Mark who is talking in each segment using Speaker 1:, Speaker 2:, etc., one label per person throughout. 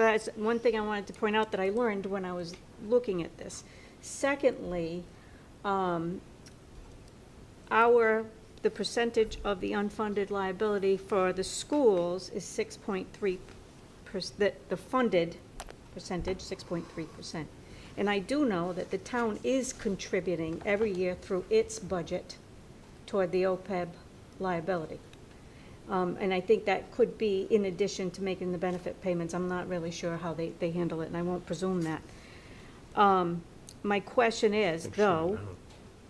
Speaker 1: that's one thing I wanted to point out that I learned when I was looking at this. Secondly, um, our, the percentage of the unfunded liability for the schools is six point three the, the funded percentage, six point three percent. And I do know that the town is contributing every year through its budget toward the OPEB liability. Um, and I think that could be in addition to making the benefit payments. I'm not really sure how they, they handle it, and I won't presume that. Um, my question is,
Speaker 2: Oh,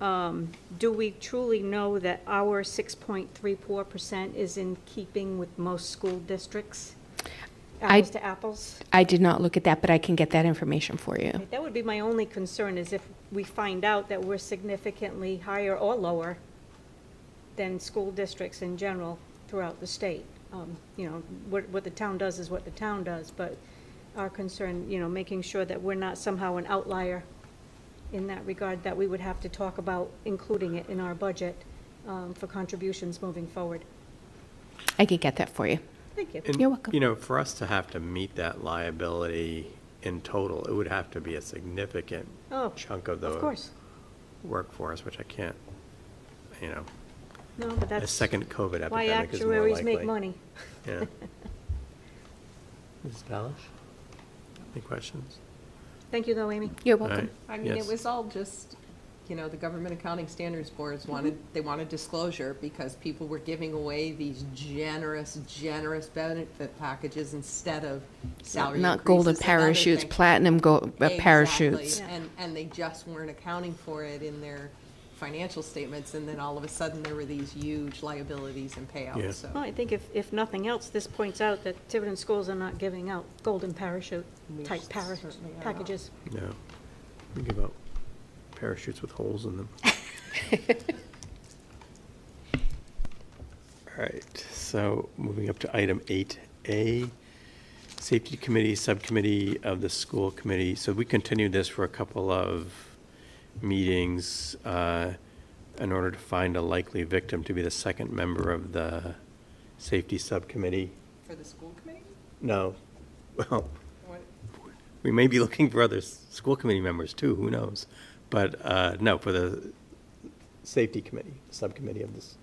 Speaker 1: though, um, do we truly know that our six point three four percent is in keeping with most school districts?
Speaker 3: I-
Speaker 1: Apples to apples?
Speaker 3: I did not look at that, but I can get that information for you.
Speaker 1: That would be my only concern, is if we find out that we're significantly higher or lower than school districts in general throughout the state. Um, You know, what, what the town does is what the town does, but our concern, you know, making sure that we're not somehow an outlier in that regard, that we would have to talk about including it in our budget um, for contributions moving forward.
Speaker 3: I can get that for you.
Speaker 1: Thank you.
Speaker 3: You're welcome.
Speaker 2: You know, for us to have to meet that liability in total, it would have to be a significant
Speaker 1: Oh,
Speaker 2: chunk of
Speaker 1: Of
Speaker 2: the
Speaker 1: course.
Speaker 2: workforce, which I can't, you know,
Speaker 1: No, but
Speaker 2: a
Speaker 1: that's
Speaker 2: second COVID
Speaker 1: why
Speaker 2: epidemic is more likely.
Speaker 1: actuaries make money.
Speaker 2: Yeah. Ms. Balish? Any questions?
Speaker 1: Thank you, though, Amy.
Speaker 3: You're
Speaker 2: All
Speaker 3: welcome.
Speaker 2: right.
Speaker 4: I mean, it
Speaker 2: Yes.
Speaker 4: was all just, you know, the Government Accounting Standards Boards
Speaker 2: Mm-hmm.
Speaker 4: wanted, they wanted disclosure because people were giving away these generous, generous benefit packages instead of salary increases.
Speaker 3: Not golden
Speaker 4: and other
Speaker 3: parachutes,
Speaker 4: things.
Speaker 3: platinum gold uh,
Speaker 4: Exactly.
Speaker 3: parachutes.
Speaker 4: And, and they just weren't accounting for it in their financial statements, and then all of a sudden, there were these huge liabilities and
Speaker 2: Yeah.
Speaker 4: payouts, so.
Speaker 1: Well, I think if, if nothing else, this points out that Tiverton schools are not giving out golden parachute
Speaker 4: We
Speaker 1: type para-
Speaker 4: certainly are not.
Speaker 1: packages.
Speaker 2: No. We give out parachutes with holes in them. All right, so moving up to item eight A, Safety Committee, Subcommittee of the School Committee. So we continued this for a couple of meetings uh, in order to find a likely victim to be the second member of the Safety Subcommittee.
Speaker 4: For the school committee?
Speaker 2: No, well,
Speaker 4: What-
Speaker 2: we may be looking for other s- school committee members too, who knows? But uh, no, for the safety committee, subcommittee of this,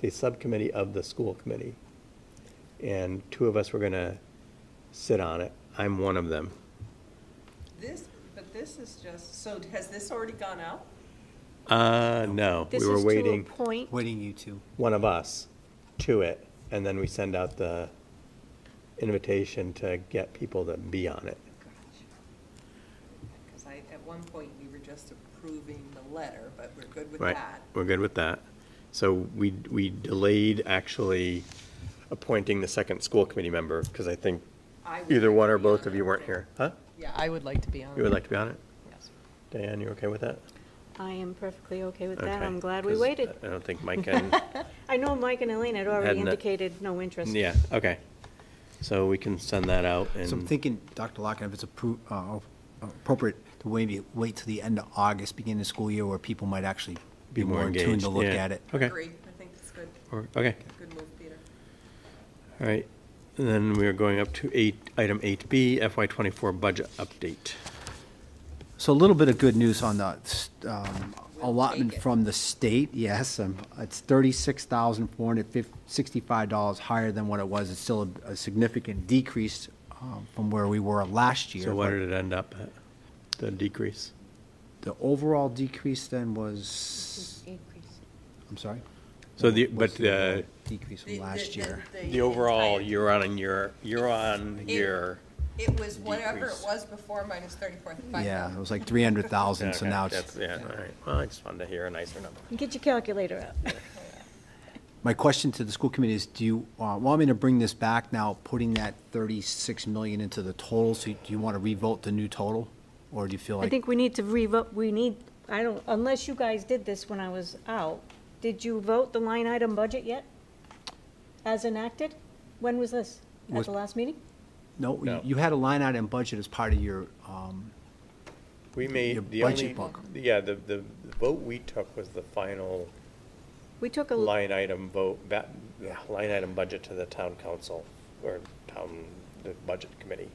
Speaker 2: the subcommittee of the school committee. And two of us were going to sit on it. I'm one of them.
Speaker 5: This, but this is just, so has this already gone out?
Speaker 2: Uh, no,
Speaker 1: This
Speaker 2: we were
Speaker 1: is to
Speaker 2: waiting,
Speaker 1: appoint,
Speaker 6: Waiting you two.
Speaker 2: one of us, to it. And then we send out the invitation to get people to be on it.
Speaker 5: Because I, at one point, we were just approving the letter, but we're good with
Speaker 2: Right,
Speaker 5: that.
Speaker 2: we're good with that. So we, we delayed actually appointing the second school committee member, because I think
Speaker 4: I would
Speaker 2: either
Speaker 4: like
Speaker 2: one
Speaker 4: to
Speaker 2: or
Speaker 4: be
Speaker 2: both
Speaker 4: on
Speaker 2: of you
Speaker 4: it.
Speaker 2: weren't here. Huh?
Speaker 4: Yeah, I would like to be on it.
Speaker 2: You would like to be on it?
Speaker 4: Yes.
Speaker 2: Diane, you okay with that?
Speaker 1: I am perfectly okay with that.
Speaker 2: Okay,
Speaker 1: I'm glad we
Speaker 2: 'cause
Speaker 1: waited.
Speaker 2: I don't think Mike and,
Speaker 1: I know Mike and Elaine had already
Speaker 2: Hadn't it-
Speaker 1: indicated no interest.
Speaker 2: yeah, okay. So we can send that out
Speaker 6: So I'm
Speaker 2: and,
Speaker 6: thinking, Dr. Locken, if it's appro- uh, appropriate to maybe wait till the end of August, beginning of school year, where people might actually be
Speaker 2: more
Speaker 6: more in tune
Speaker 2: engaged,
Speaker 6: to look
Speaker 2: yeah.
Speaker 6: at it.
Speaker 2: Okay.
Speaker 5: Agree, I think it's good,
Speaker 2: or- okay,
Speaker 5: good move, Peter.
Speaker 2: all right. And then we are going up to eight, item eight B, FY twenty-four budget update.
Speaker 6: So a little bit of good news on the um,
Speaker 5: We'll
Speaker 6: allotment
Speaker 5: take it.
Speaker 6: from the state, yes. um, It's thirty-six thousand four hundred sixty-five dollars higher than what it was. It's still a- a significant decrease um, from where we were last year.
Speaker 2: So what
Speaker 6: but-
Speaker 2: did it end up at, the decrease?
Speaker 6: The overall decrease then was, I'm sorry?
Speaker 2: So the, but uh,
Speaker 6: What's
Speaker 2: the
Speaker 6: Decrease
Speaker 5: The-
Speaker 6: from
Speaker 5: the-
Speaker 6: last
Speaker 5: the-
Speaker 6: year.
Speaker 2: The overall
Speaker 5: entire-
Speaker 2: year on year, year on year.
Speaker 5: It was whatever it
Speaker 2: decrease.
Speaker 5: was before minus thirty-four, five
Speaker 6: Yeah, it
Speaker 5: thousand.
Speaker 6: was like three hundred thousand, so now it's,
Speaker 2: That's- Yeah, all right. Well, I just wanted to hear a nicer number.
Speaker 1: Get your calculator out.
Speaker 6: my question to the school committee is, do you uh, want me to bring this back now, putting that thirty-six million into the total? So do you want to revote the new total? Or do you feel
Speaker 1: I
Speaker 6: like,
Speaker 1: think we need to revote, we need, I don't, unless you guys did this when I was out, did you vote the line item budget yet? As enacted? When was this? At
Speaker 6: Was-
Speaker 1: the last meeting?
Speaker 6: no, you-
Speaker 2: No.
Speaker 6: you had a line item budget as part of your, um,
Speaker 2: We
Speaker 6: Your
Speaker 2: made, the
Speaker 6: budget
Speaker 2: only,
Speaker 6: book.
Speaker 2: yeah, the, the the vote we took was the final
Speaker 1: We took a.
Speaker 2: line item vote, ba- yeah, line item budget to the town council or town, the budget committee.